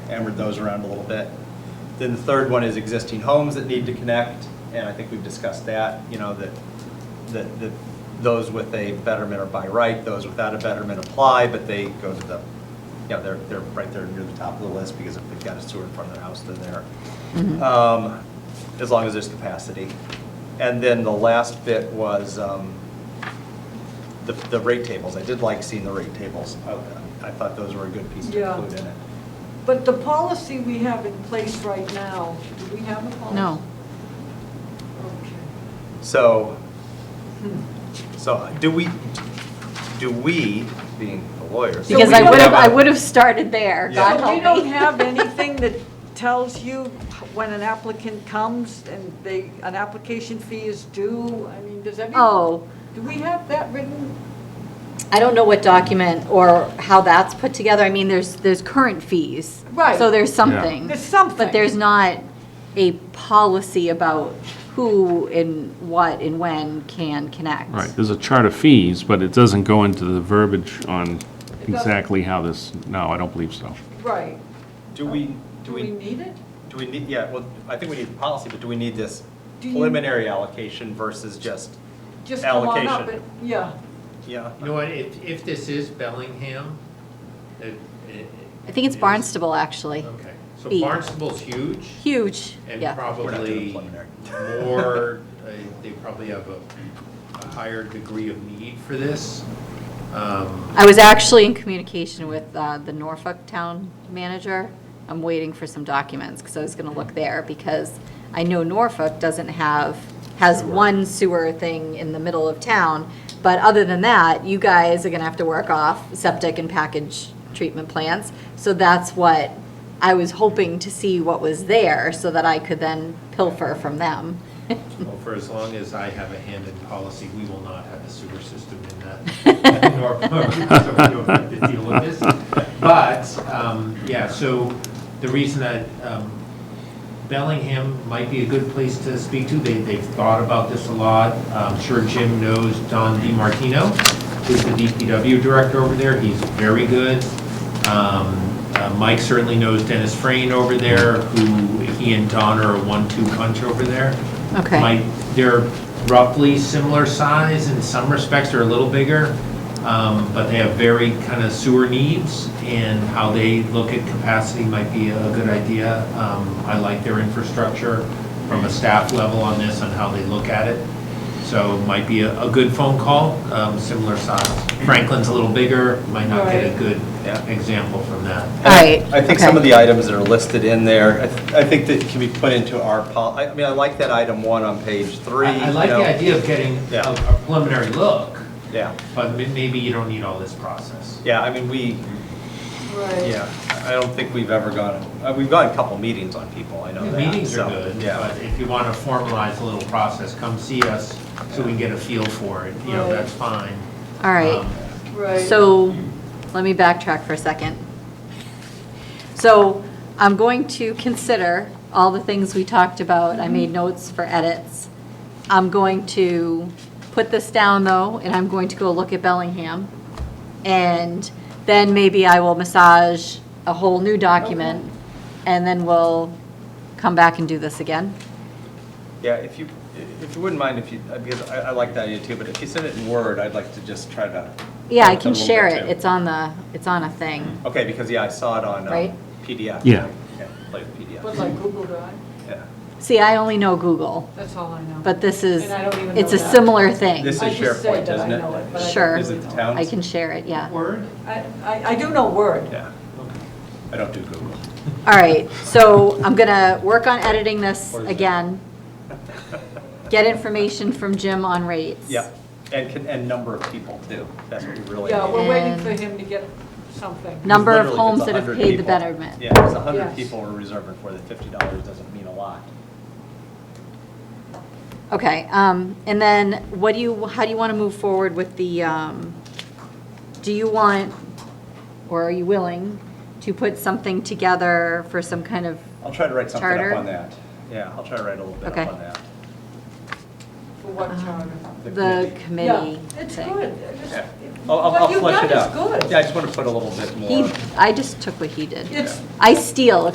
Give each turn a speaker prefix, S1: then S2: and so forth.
S1: hammered those around a little bit. Then the third one is existing homes that need to connect, and I think we've discussed that, you know, that, that, that those with a betterment are by right, those without a betterment apply, but they go to the, you know, they're, they're right there near the top of the list, because if they've got a sewer in front of their house, they're there. Um, As long as there's capacity. And then the last bit was, um, the, the rate tables. I did like seeing the rate tables. I- I thought those were a good piece to
S2: Yeah.
S1: include in it.
S2: But the policy we have in place right now, do we have a policy?
S3: No.
S2: Okay.
S1: So, so do we, do we, being the lawyers? do
S3: Because
S1: we
S3: I would have,
S1: a-
S3: I would have started there,
S1: Yeah.
S3: God
S2: So
S3: help
S2: we
S3: me.
S2: don't have anything that tells you when an applicant comes and they, an application fee is due? I mean, does any?
S3: Oh.
S2: Do we have that written?
S3: I don't know what document or how that's put together. I mean, there's, there's current fees.
S2: Right.
S3: So there's something.
S2: There's something.
S3: But there's not a policy about who and what and when can connect.
S4: Right, there's a chart of fees, but it doesn't go into the verbiage on
S2: doesn't.
S4: exactly how this, no, I don't believe so.
S2: Right.
S1: Do we,
S2: Do
S1: do
S2: we
S1: we,
S2: need it?
S1: do we need, yeah, well, I think we need the policy, but do we need this
S2: Do you-
S1: preliminary allocation versus just,
S2: Just come on up
S1: Allocation.
S2: and- Yeah.
S1: yeah?
S5: You know what, if, if this is Bellingham, it. it-
S3: I think it's
S5: it is-
S3: Barnstable, actually.
S5: Okay, so
S3: B.
S5: Barnstable's huge
S3: Huge,
S5: and
S3: yeah.
S1: We're not doing
S5: probably
S1: preliminary.
S5: more, uh, they probably have a a higher degree of need for this. Um,
S3: I was actually in communication with uh, the Norfolk Town Manager. I'm waiting for some documents, because I was going to look there, because I know Norfolk doesn't have, has one sewer thing in the middle of town, but other than that, you guys are going to have to work off septic and package treatment plants. So that's what, I was hoping to see what was there, so that I could then pilfer from them.
S5: Well, for as long as I have a hand in policy, we will not have a sewer system in that- that. Norfolk, so we don't have to deal with this. But, um, yeah, so the reason that um, Bellingham might be a good place to speak to, they, they've thought about this a lot. I'm sure Jim knows Don DiMartino, who's the DPW director over there, he's very good. Um, uh, Mike certainly knows Dennis Frain over there, who, he and Don are a one-two punch over there.
S3: Okay.
S5: Mike, they're roughly similar size, in some respects they're a little bigger, um, but they have very kind of sewer needs, and how they look at capacity might be a good idea. Um, I like their infrastructure from a staff level on this, on how they look at it. So it might be a, a good phone call, um, similar size. Franklin's a little bigger, might not get a
S2: Right.
S5: good
S1: Yeah.
S5: example from that.
S3: All right,
S1: I think some
S3: okay.
S1: of the items that are listed in there, I th- I think that can be put into our, pol- I I mean, I like that item one on page three.
S5: I I like
S1: you know.
S5: the idea of getting a
S1: Yeah.
S5: a preliminary look,
S1: Yeah,
S5: but ma- maybe you don't need all this process.
S1: yeah, I mean, we,
S2: Right.
S1: Yeah, I don't think we've ever gone, uh, we've gone a couple meetings on people, I know
S5: The
S1: that.
S5: Meetings
S1: so,
S5: are good,
S1: Yeah,
S5: but if you want to formalize a little process, come see us so we can get a feel for it, you know,
S2: Right.
S5: that's fine.
S3: All right.
S5: Um,
S2: Right.
S3: So, let me backtrack for a second. So, I'm going to consider all the things we talked about, I made notes for edits. I'm going to put this down, though, and I'm going to go look at Bellingham. And then maybe I will massage a whole new document, and then we'll come back and do this again.
S1: yeah, if you, if you wouldn't mind, if you, uh, because I, I like that idea too, but if you send it in Word, I'd like to just try to.
S3: Yeah, I
S1: work
S3: can
S1: a little
S3: share
S1: bit,
S3: it,
S1: too.
S3: it's on the, it's on a thing.
S1: Okay, because, yeah, I saw it on um,
S3: Right?
S1: PDF.
S4: Yeah.
S1: Play with PDF,
S2: But like Google Drive,
S1: yeah.
S3: See, I only know Google,
S2: that's all I know.
S3: but this is,
S2: And I don't even
S3: it's
S2: know
S3: a
S2: that.
S3: similar thing.
S1: This is
S2: I just say
S1: SharePoint,
S2: that I
S1: isn't it?
S2: know it, but I don't
S3: Sure.
S1: Is it the
S2: really know.
S1: town?
S3: I can share it, yeah.
S5: Um, Word?
S2: I, I- I do know Word.
S1: Yeah, I don't do Google.
S3: All right, so I'm gonna work on editing this again. Get information from Jim on rates.
S1: Yeah, and can, and number of people too, that's what we really
S2: Yeah,
S1: need.
S2: we're waiting
S3: And-
S2: for him to get something.
S3: Number
S1: Literally, if
S3: of
S1: it's
S3: homes that have
S1: 100
S3: paid the
S1: people-
S3: betterment.
S1: Yeah, it's a hundred
S2: Yes.
S1: people we're reserving for, the fifty dollars doesn't mean a lot.
S3: Okay, um, and then what do you, how do you wanna move forward with the, um, do you want, or are you willing to put something together for some kind of,
S1: I'll try to write something
S3: Charter?
S1: up on that. Yeah, I'll try to write a little bit
S3: Okay.
S1: up on that.
S2: For what charter?
S3: the committee
S2: Yeah, It's
S3: thing.
S2: good. I just-
S1: Yeah. I'll, I'll- I'll flesh it out.
S2: What you've done is
S1: Yeah, I
S2: good.
S1: just want to put a little bit more.
S3: He, I just took what he did.
S2: It's,
S3: I steal